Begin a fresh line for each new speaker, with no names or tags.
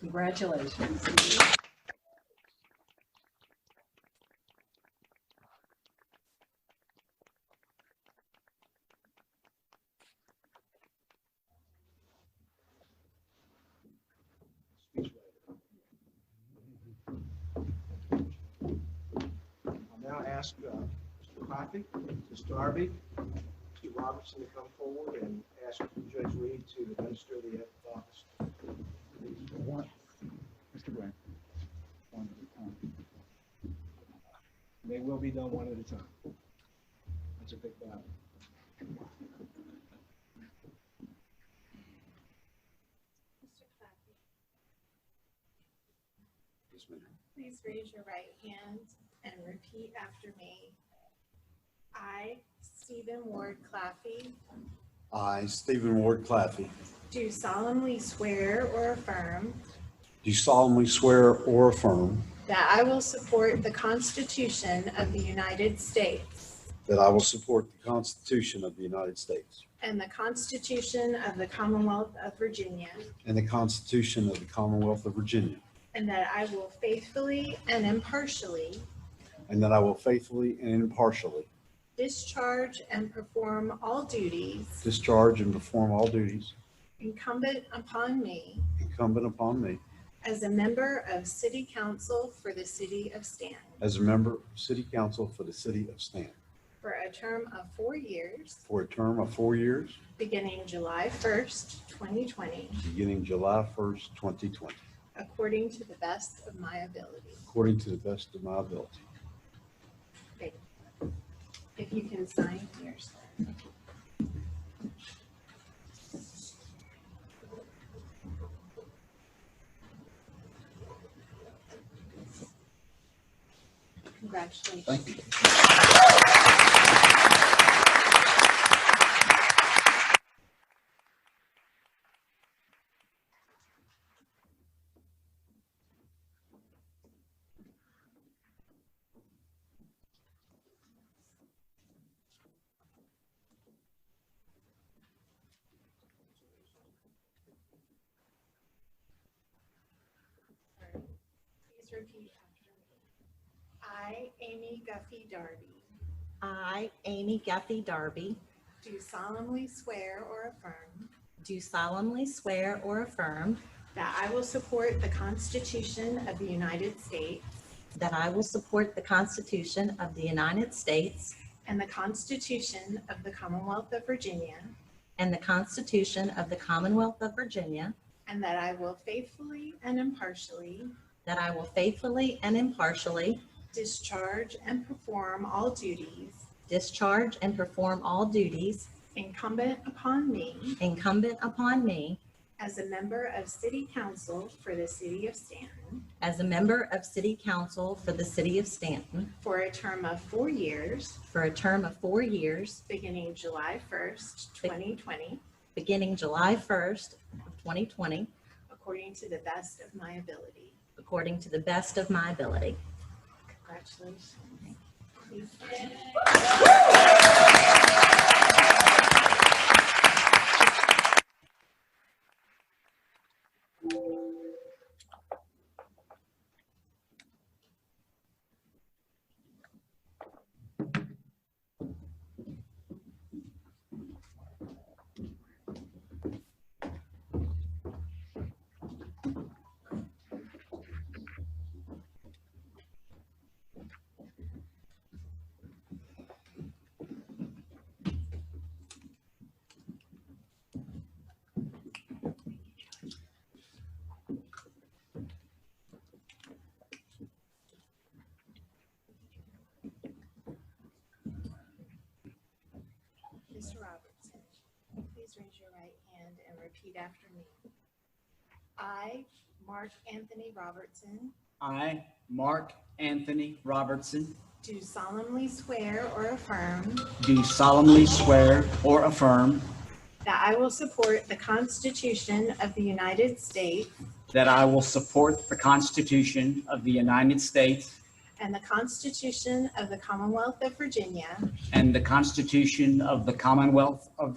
Congratulations.
I'll now ask uh, Mr. Coffey, Mr. Darby, Mr. Robertson to come forward and ask Judge Reed to administer the oath of office.
One, Mr. Grant. One at a time.
They will be done one at a time. That's a big Bible.
Mr. Clappy,
Yes, ma'am.
please raise your right hand and repeat after me. I, Stephen Ward Claffey,
I, Stephen Ward Claffey,
do solemnly swear or affirm
do solemnly swear or affirm
that I will support the Constitution of the United States
that I will support the Constitution of the United States
and the Constitution of the Commonwealth of Virginia,
and the Constitution of the Commonwealth of Virginia,
and that I will faithfully and impartially
and that I will faithfully and impartially
discharge and perform all duties
discharge and perform all duties
incumbent upon me
incumbent upon me
as a member of City Council for the City of Stanton.
as a member of City Council for the City of Stanton
for a term of four years,
for a term of four years,
beginning July 1st, 2020,
beginning July 1st, 2020,
according to the best of my ability.
according to the best of my ability.
If you can sign here, sir. Congratulations.
Thank you.
Please repeat after me. I, Amy Guffey Darby,
I, Amy Guffey Darby,
do solemnly swear or affirm
do solemnly swear or affirm
that I will support the Constitution of the United States
that I will support the Constitution of the United States
and the Constitution of the Commonwealth of Virginia,
and the Constitution of the Commonwealth of Virginia,
and that I will faithfully and impartially
that I will faithfully and impartially
discharge and perform all duties
discharge and perform all duties
incumbent upon me
incumbent upon me
as a member of City Council for the City of Stanton
as a member of City Council for the City of Stanton
for a term of four years,
for a term of four years,
beginning July 1st, 2020,
beginning July 1st, of 2020,
according to the best of my ability.
according to the best of my ability.
Congratulations. Please stand. Mr. Robertson, please raise your right hand and repeat after me. I, Mark Anthony Robertson,
I, Mark Anthony Robertson,
do solemnly swear or affirm
do solemnly swear or affirm
that I will support the Constitution of the United States
that I will support the Constitution of the United States
and the Constitution of the Commonwealth of Virginia,
and the Constitution of the Commonwealth of